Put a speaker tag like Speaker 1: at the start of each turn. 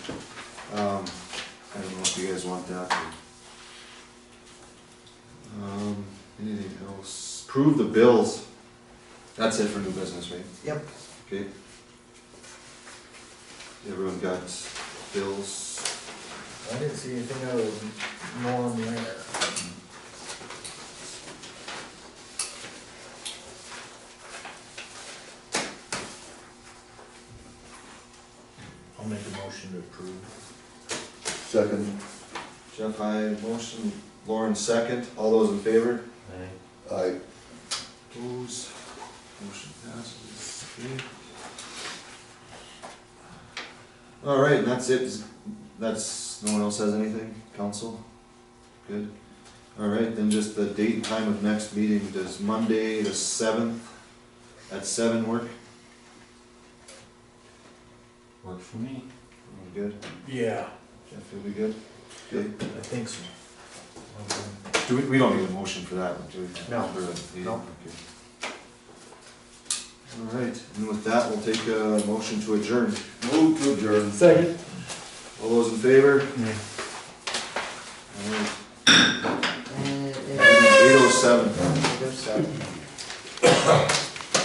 Speaker 1: Um, you guys want that. Um, anything else? Prove the bills. That's it for new business, right?
Speaker 2: Yep.
Speaker 1: Okay. Everyone got bills?
Speaker 2: I didn't see anything out of norm there.
Speaker 3: I'll make a motion to approve.
Speaker 4: Second,
Speaker 1: Jeff, I motion, Lauren second, all those in favor?
Speaker 4: I,
Speaker 1: Opposed, motion passes. Okay. All right, and that's it, Is- that's, no one else has anything, council? Good, all right, then just the date and time of next meeting, does Monday the seventh at seven work?
Speaker 3: Works for me.
Speaker 1: Everyone Good,
Speaker 3: Yeah,
Speaker 1: Jeff, you'll be good? Okay.
Speaker 3: I think so.
Speaker 1: Do we, we don't need a motion for that, do we?
Speaker 2: No.
Speaker 1: For a meeting,
Speaker 2: No.
Speaker 1: okay. All right, and with that, we'll take a motion to adjourn.
Speaker 4: move to adjourn.
Speaker 2: Second.
Speaker 1: All those in favor?
Speaker 3: Yeah.
Speaker 2: And,
Speaker 1: Eight oh seven.
Speaker 2: and,